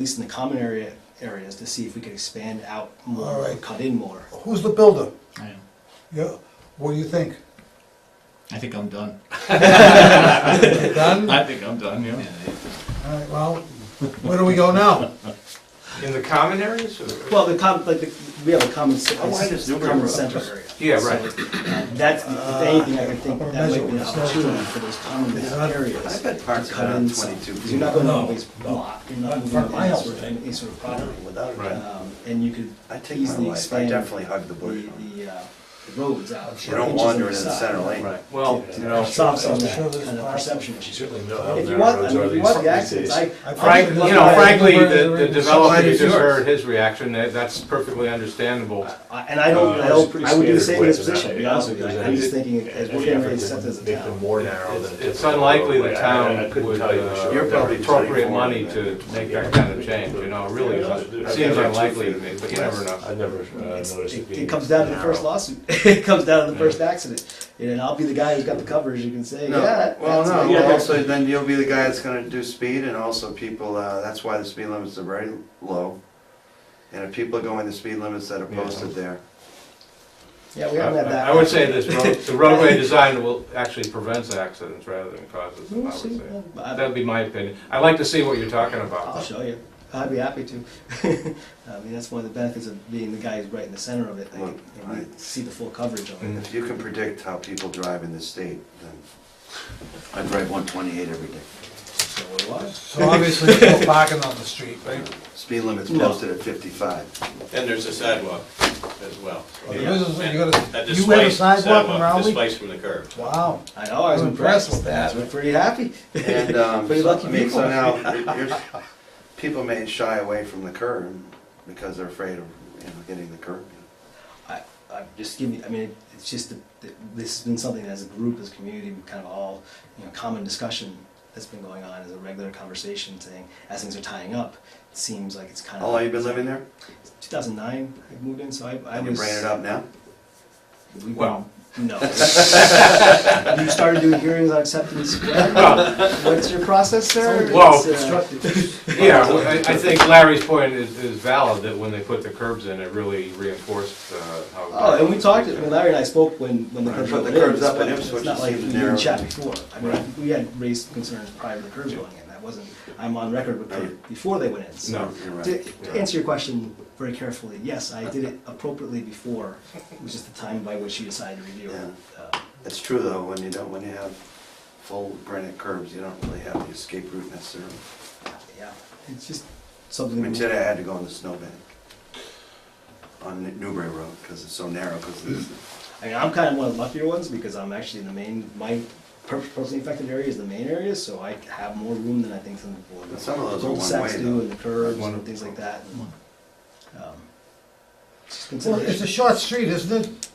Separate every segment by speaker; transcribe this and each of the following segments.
Speaker 1: least in the common area, areas, to see if we could expand out
Speaker 2: All
Speaker 1: more,
Speaker 2: right.
Speaker 1: cut in more.
Speaker 2: Who's the builder?
Speaker 3: I am.
Speaker 2: Yeah, what do you think?
Speaker 3: I think I'm done.
Speaker 2: Done? All
Speaker 3: I think I'm done, yeah.
Speaker 2: right, well, where do we go now?
Speaker 4: In the common areas or?
Speaker 1: Well, the com, like, the- we have a common, se-
Speaker 4: How wide is Newbury
Speaker 1: common
Speaker 4: Road?
Speaker 1: center area.
Speaker 4: Yeah, right.
Speaker 1: So, uh, That's, if anything, I would think
Speaker 2: Uh,
Speaker 1: that might be an
Speaker 2: measurements, that's-
Speaker 1: opportunity for those common
Speaker 2: Yeah.
Speaker 4: I
Speaker 1: areas.
Speaker 4: bet parts
Speaker 1: Cut
Speaker 4: are
Speaker 1: in
Speaker 4: on
Speaker 1: some,
Speaker 4: twenty-two.
Speaker 1: because you're not going to
Speaker 2: No,
Speaker 1: always
Speaker 2: no.
Speaker 1: block, you're not
Speaker 2: Not in
Speaker 1: moving
Speaker 2: front of my
Speaker 1: any
Speaker 2: house,
Speaker 1: sort of,
Speaker 2: right?
Speaker 1: any sort of property.
Speaker 4: Without
Speaker 1: Um,
Speaker 4: it.
Speaker 1: And you could
Speaker 4: I take my
Speaker 1: easily
Speaker 4: life, I
Speaker 1: expand.
Speaker 4: definitely hug the bush.
Speaker 1: The, the, uh, the roads out.
Speaker 4: You don't
Speaker 1: inches on
Speaker 4: wander
Speaker 1: each
Speaker 4: into the
Speaker 1: side.
Speaker 4: center lane.
Speaker 5: Well, you know,
Speaker 1: Stops on
Speaker 2: I'm
Speaker 1: that,
Speaker 2: sure there's
Speaker 1: kind of
Speaker 2: parts-
Speaker 1: perception issue.
Speaker 5: certainly know how
Speaker 1: If you
Speaker 5: narrow
Speaker 1: want, I
Speaker 5: roads are
Speaker 1: mean, if you
Speaker 5: these
Speaker 1: want the
Speaker 5: days.
Speaker 1: accents, I.
Speaker 2: I
Speaker 4: Frank,
Speaker 2: think-
Speaker 4: you know, frankly, the, the developer,
Speaker 2: Society
Speaker 4: you
Speaker 2: is
Speaker 4: just
Speaker 2: yours.
Speaker 4: heard his reaction, that- that's perfectly understandable.
Speaker 1: I- And I don't,
Speaker 5: Uh,
Speaker 1: I don't, I would do the same in this
Speaker 5: standard width is
Speaker 1: position, to be
Speaker 5: not-
Speaker 1: honest with you, I- I'm just thinking, as we're getting ready to set this
Speaker 5: Make them
Speaker 1: down.
Speaker 5: more narrow than. a
Speaker 4: It's- It's
Speaker 5: typical
Speaker 4: unlikely the
Speaker 5: roadway. I- I
Speaker 4: town
Speaker 5: couldn't
Speaker 4: would
Speaker 5: tell you for
Speaker 4: uh,
Speaker 5: sure.
Speaker 4: appropriate money to make that kind of change, you know, it really is un-
Speaker 5: I've
Speaker 4: seems
Speaker 5: never-
Speaker 4: unlikely to me, but you never know.
Speaker 5: I've never uh,
Speaker 1: It's-
Speaker 5: noticed it
Speaker 1: It
Speaker 5: being.
Speaker 1: it comes down to the first
Speaker 5: narrow.
Speaker 1: lawsuit, it comes down to the first accident, and I'll be the guy who's got the covers, you can say, yeah,
Speaker 6: No,
Speaker 1: that-
Speaker 6: well,
Speaker 1: that's.
Speaker 6: no,
Speaker 1: yeah,
Speaker 6: well,
Speaker 1: that's-
Speaker 6: also, then you'll be the guy that's gonna do speed, and also people, uh, that's why the speed limits are very low. And if people are going the speed limits that are
Speaker 4: Yeah.
Speaker 6: posted there,
Speaker 1: Yeah, we haven't had that.
Speaker 4: I would say this, road- the roadway design will actually prevents accidents rather than causes them, I
Speaker 1: We'll
Speaker 4: would
Speaker 1: see,
Speaker 4: say.
Speaker 1: uh, I-
Speaker 4: That'd be my opinion, I'd like to see what you're talking
Speaker 1: I'll
Speaker 4: about.
Speaker 1: show you, I'd be happy to, I mean, that's one of the benefits of being the guy who's right in the center of it, I
Speaker 6: Look,
Speaker 1: can, I can see the full coverage of it.
Speaker 6: if you can predict how people drive in this state, then I drive one twenty-eight every day.
Speaker 1: So what?
Speaker 2: So obviously, there's no parking on the street, right?
Speaker 6: Speed limit's
Speaker 1: No.
Speaker 6: posted at fifty-five.
Speaker 7: And there's a sidewalk as well.
Speaker 2: Well, there is a- you
Speaker 7: That
Speaker 2: gotta- you have a
Speaker 7: displays-
Speaker 1: uh,
Speaker 2: sidewalk in Rowley?
Speaker 7: Displaced from the curb.
Speaker 2: Wow,
Speaker 1: I know, I was
Speaker 2: I'm
Speaker 1: impressed
Speaker 2: impressed
Speaker 1: with that,
Speaker 2: with
Speaker 1: we're pretty happy.
Speaker 6: And, um,
Speaker 1: Pretty
Speaker 6: so,
Speaker 1: lucky
Speaker 6: I mean, so
Speaker 1: people.
Speaker 6: now, you're- people may shy away from the curb because they're afraid of, you know, getting the curb.
Speaker 1: I, I'm just giving. I mean, it's just the, the, this has been something as a group, as a community, we kind of all, you know, common discussion that's been going on as a regular conversation, saying as things are tying up, it seems like it's kind
Speaker 6: How
Speaker 1: of.
Speaker 6: long you been living there?
Speaker 1: 2009, I moved in, so I, I
Speaker 6: And you
Speaker 1: was.
Speaker 6: bringing it up now?
Speaker 1: We,
Speaker 4: Well.
Speaker 1: No. you started doing hearings on acceptance. What's your process, sir?
Speaker 4: Well,
Speaker 1: It's, uh,
Speaker 4: Yeah, well, I, I think Larry's point is, is valid, that when they put the curbs in, it really reinforced, uh, how.
Speaker 1: Oh, and we talked, I mean, Larry and I spoke when, when the
Speaker 6: Right,
Speaker 1: curves
Speaker 6: but
Speaker 1: went
Speaker 6: the
Speaker 1: in.
Speaker 6: curbs up
Speaker 1: but
Speaker 6: in
Speaker 1: It's
Speaker 6: Ipswich
Speaker 1: not like
Speaker 6: seems
Speaker 1: we
Speaker 6: narrow.
Speaker 1: didn't chat before. I mean, we had raised concerns prior to the curves going in. That wasn't, I'm on record with that before they went in. so-
Speaker 4: No.
Speaker 6: You're right.
Speaker 1: To to answer your question very carefully, yes, I did it appropriately before. It was just the time by which you decided to review it. Uh,
Speaker 6: It's true though, when you don't, when you have full granite curbs, you don't really have the escape route necessarily.
Speaker 1: Yeah, it's just
Speaker 6: I
Speaker 1: something.
Speaker 6: mean, today I had to go in the snowbank on New- Newbury Road because it's so narrow because it's,
Speaker 1: I mean, I'm kind of one of the luckier ones because I'm actually in the main, my per- personally affected area is the main area, so I have more room than I think some people.
Speaker 6: But some of those are
Speaker 1: Cul-de-sacs
Speaker 6: one-way,
Speaker 1: do
Speaker 6: though.
Speaker 1: and the curves
Speaker 4: One-
Speaker 1: and things like that. and, um, Just
Speaker 2: well, it's a
Speaker 1: consideration.
Speaker 2: short street, isn't it?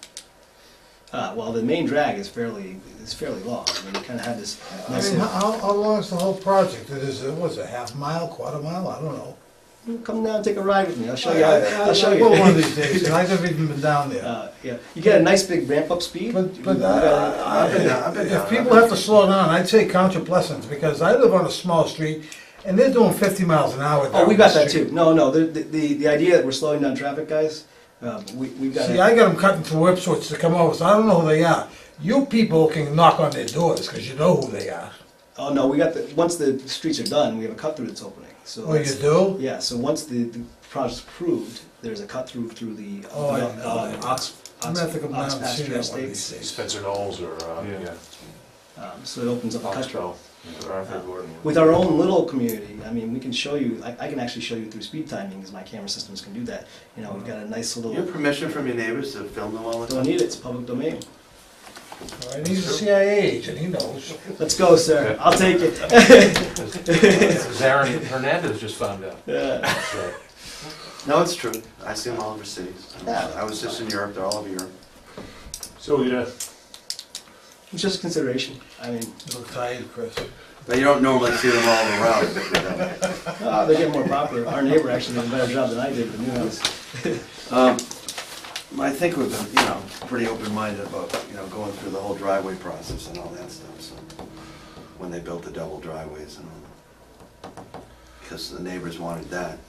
Speaker 1: Uh, well, the main drag is fairly, is fairly long. I mean, you kind of have this
Speaker 2: I mean,
Speaker 1: massive,
Speaker 2: how- how, how long is the whole project? It is, uh, what's it, half mile, quarter mile, I don't know.
Speaker 1: "Mm, come down, and take a ride with me, I'll show
Speaker 2: I-
Speaker 1: you,
Speaker 2: I- I-
Speaker 1: I'll show
Speaker 2: I will one of
Speaker 1: you.
Speaker 2: these days, and I haven't even been down there.
Speaker 1: Uh, Yeah, you get a nice big ramp up speed.
Speaker 2: But,
Speaker 1: You
Speaker 2: but,
Speaker 1: gotta-
Speaker 2: uh, if people have to slow down, I'd say count your blessings, because I live on a small street, and they're doing fifty miles an hour
Speaker 1: Oh,
Speaker 2: down
Speaker 1: we
Speaker 2: the
Speaker 1: got that
Speaker 2: street.
Speaker 1: too. No, no, the, the- the, the idea that we're slowing down traffic, guys, um, we, we've got.
Speaker 2: See, I got them cutting through Ipswich to come over, so I don't know who they are. You people can knock on their doors, because you know who they are.
Speaker 1: Oh, no, we got the, once the streets are done, we have a cut through that's opening, so.
Speaker 2: Oh, you
Speaker 1: it's-
Speaker 2: do?
Speaker 1: Yeah, so once the, the project's approved, there's a cut through through the, uh,
Speaker 2: Oh, I-
Speaker 1: uh, Ox,
Speaker 2: I'm
Speaker 1: Ox,
Speaker 2: gonna have to come down
Speaker 1: Ox
Speaker 2: and see
Speaker 1: pasture
Speaker 2: that one of these
Speaker 1: estates.
Speaker 2: days.
Speaker 5: Spencer Knowles or, uh,
Speaker 4: Yeah.
Speaker 5: yeah.
Speaker 1: Um, so it opens up a cut through.
Speaker 5: Oxbow, or Arthur Gordon.
Speaker 1: With our own little community, I mean, we can show you, I, I can actually show you through speed timing, because my camera systems can do that. You know, we've got a nice
Speaker 6: you have
Speaker 1: little,
Speaker 6: permission from your neighbors to film them all the
Speaker 1: don't
Speaker 6: time?
Speaker 1: need it, it's public domain.
Speaker 2: All right, He's a CIA agent, he knows.
Speaker 1: Let's go, sir, I'll take it.
Speaker 4: Zarin Hernandez just found out.
Speaker 1: Yeah.
Speaker 4: so.
Speaker 6: No, it's true. I see them all over cities. I was-
Speaker 1: Yeah.
Speaker 6: I was just in Europe, they're all over Europe.
Speaker 5: So, yeah,
Speaker 1: It's just consideration, I mean,
Speaker 2: You look tired, Chris.
Speaker 6: But you don't normally see them all around. you know.
Speaker 1: oh, they're getting more popular. Our neighbor actually did a better job than I did, with the new house.
Speaker 6: Um, I think we've been, you know, pretty open-minded about, you know, going through the whole driveway process and all that stuff, so, when they built the double driveways and all that. because the neighbors wanted that.